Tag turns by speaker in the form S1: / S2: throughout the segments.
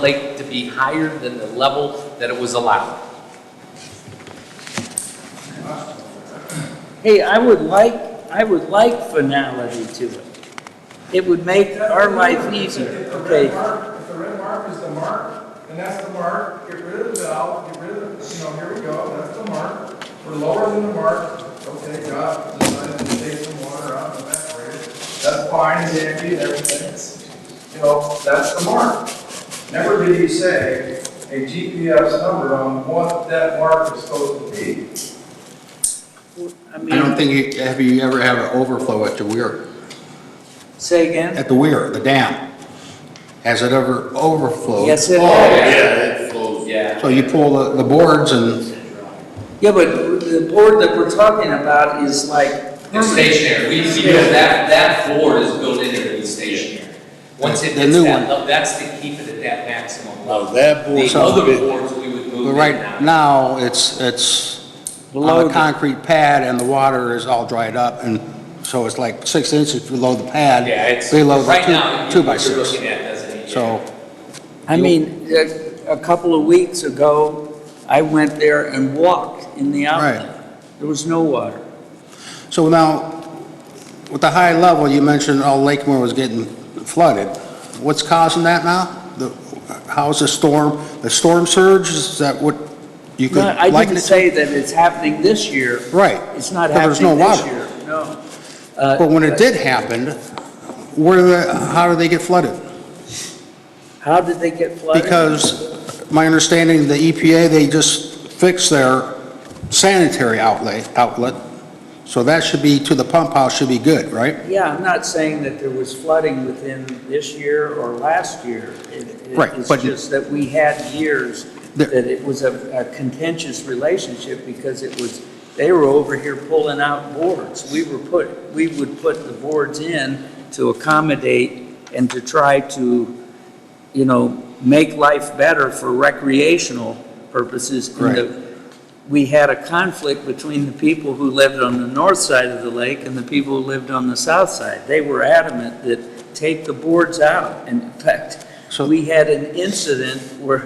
S1: lake to be higher than the level that it was allowed.
S2: Hey, I would like, I would like finality to it. It would make our life easier,
S3: If the red
S2: okay?
S3: mark, if the red mark is the mark, then that's the mark, get rid of the valve, get rid of, you know, here we go, that's the mark. We're lower than the mark, okay, God, decided to take some water out and evaporate it. That's fine, and dandy, everything's, you know, that's the mark. Never did you say a GPS number on what that mark is supposed to be.
S2: I
S4: I
S2: mean,
S4: don't think, you- have you ever have an overflow at the weir,
S2: say again?
S4: at the weir, the dam? Has it ever overflowed?
S2: Yes, it
S4: Oh,
S2: has.
S1: Yeah.
S4: So you pull the, the boards and,
S2: Yeah, but the board that we're talking about is like.
S1: It's stationary. We, we know that, that board is built into the stationary. Once it
S4: The
S1: hits
S4: new
S1: that,
S4: one. Oh.
S1: level, that's to keep it at that maximum level.
S5: Now, that board's
S1: The other
S5: been-
S1: boards, we would move
S4: but
S1: in
S4: right
S1: and out.
S4: now, it's, it's
S2: Below
S4: on
S2: the-
S4: a concrete pad and the water is all dried up and so it's like six inches below the pad.
S1: Yeah, it's,
S4: Below
S1: right
S4: the
S1: now,
S4: two,
S1: you-
S4: two by
S1: what you're
S4: six.
S1: looking at doesn't. yeah.
S4: So,
S2: I mean, a, a couple of weeks ago, I went there and walked in the outlet. There was no water.
S4: so now, with the high level, you mentioned all Lakemore was getting flooded. What's causing that now? The, how's the storm, the storm surge? Is that what you could
S2: No, I
S4: liken
S2: didn't
S4: it to?
S2: say that it's happening this year.
S4: Right.
S2: It's not
S4: Well, there's no
S2: happening this
S4: water.
S2: year, no. Uh,
S4: But when it did happen, where, the- how did they get flooded?
S2: How did they get flooded?
S4: Because my understanding, the EPA, they just fixed their sanitary outlay, outlet, so that should be, to the pump house should be good, right?
S2: Yeah, I'm not saying that there was flooding within this year or last year. It- it-
S4: Right, but-
S2: It's just that we had years
S4: The-
S2: that it was a a contentious relationship because it was, they were over here pulling out boards. We were put, we would put the boards in to accommodate and to try to, you know, make life better for recreational purposes. And
S4: Right.
S2: the- We had a conflict between the people who lived on the north side of the lake and the people who lived on the south side. They were adamant that take the boards out. And in fact,
S4: So-
S2: we had an incident where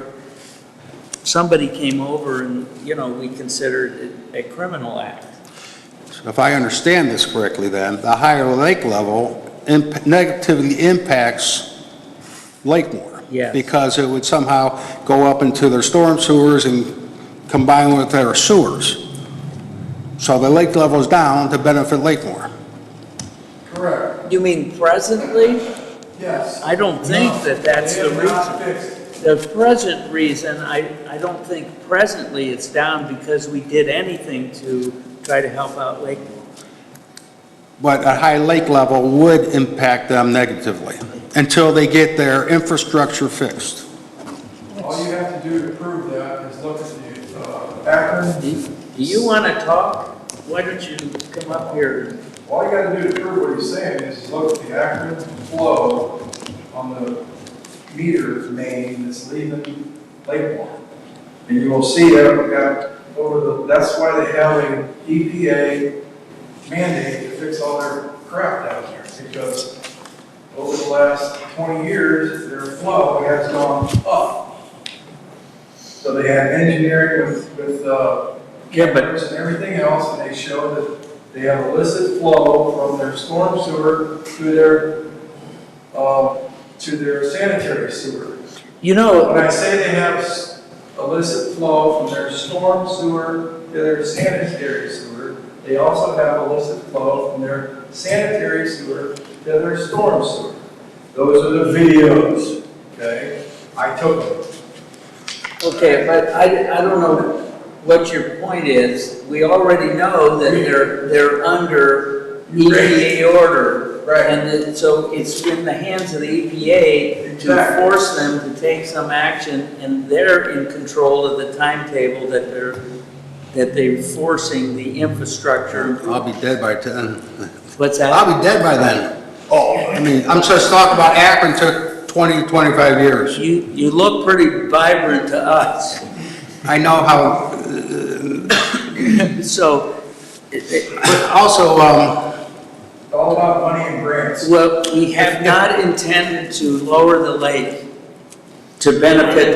S2: somebody came over and, you know, we considered it a criminal act.
S4: If I understand this correctly, then, the higher lake level imp- negatively impacts Lakemore.
S2: Yes.
S4: Because it would somehow go up into their storm sewers and combine with their sewers. So the lake level's down to benefit Lakemore.
S3: Correct,
S2: You mean presently?
S3: yes.
S2: I don't think that that's the
S3: It is not
S2: reason.
S3: fixed.
S2: The present reason, I, I don't think presently it's down because we did anything to try to help out Lakeville.
S4: But a high lake level would impact them negatively until they get their infrastructure fixed.
S3: All you have to do to prove that is look at the, uh, Akron,
S2: Do do you want to talk? Why don't you come up here?
S3: all you gotta do to prove what he's saying is look at the Akron flow on the meter main that's leaving Lakemore. And you will see that we got over the, that's why they have an EPA mandate to fix all their crap down there. Because over the last twenty years, their flow has gone up. So they had engineering with, with, uh,
S2: Yeah, but-
S3: cameras and everything else, and they showed that they have illicit flow from their storm sewer to their, uh, to their sanitary sewer.
S2: You
S3: When
S2: know,
S3: I say they have s- illicit flow from their storm sewer to their sanitary sewer, they also have illicit flow from their sanitary sewer to their storm sewer. Those are the videos, okay? I took them.
S2: okay, but I, I don't know what your point is. We already know that they're, they're under EPA order.
S3: Right.
S2: And it- so it's in the hands of the EPA to
S3: Exactly.
S2: force them to take some action, and they're in control of the timetable that they're, that they're forcing the infrastructure.
S4: I'll be dead by then.
S2: What's that?
S4: I'll be dead by then. Oh. I mean, I'm just talking about Akron took 20, 25 years.
S2: You, you look pretty vibrant to us.
S4: I know how,
S2: So, it- it-
S4: but also, um,
S3: It's all about money and grants.
S2: well, we have not intended to lower the lake. to benefit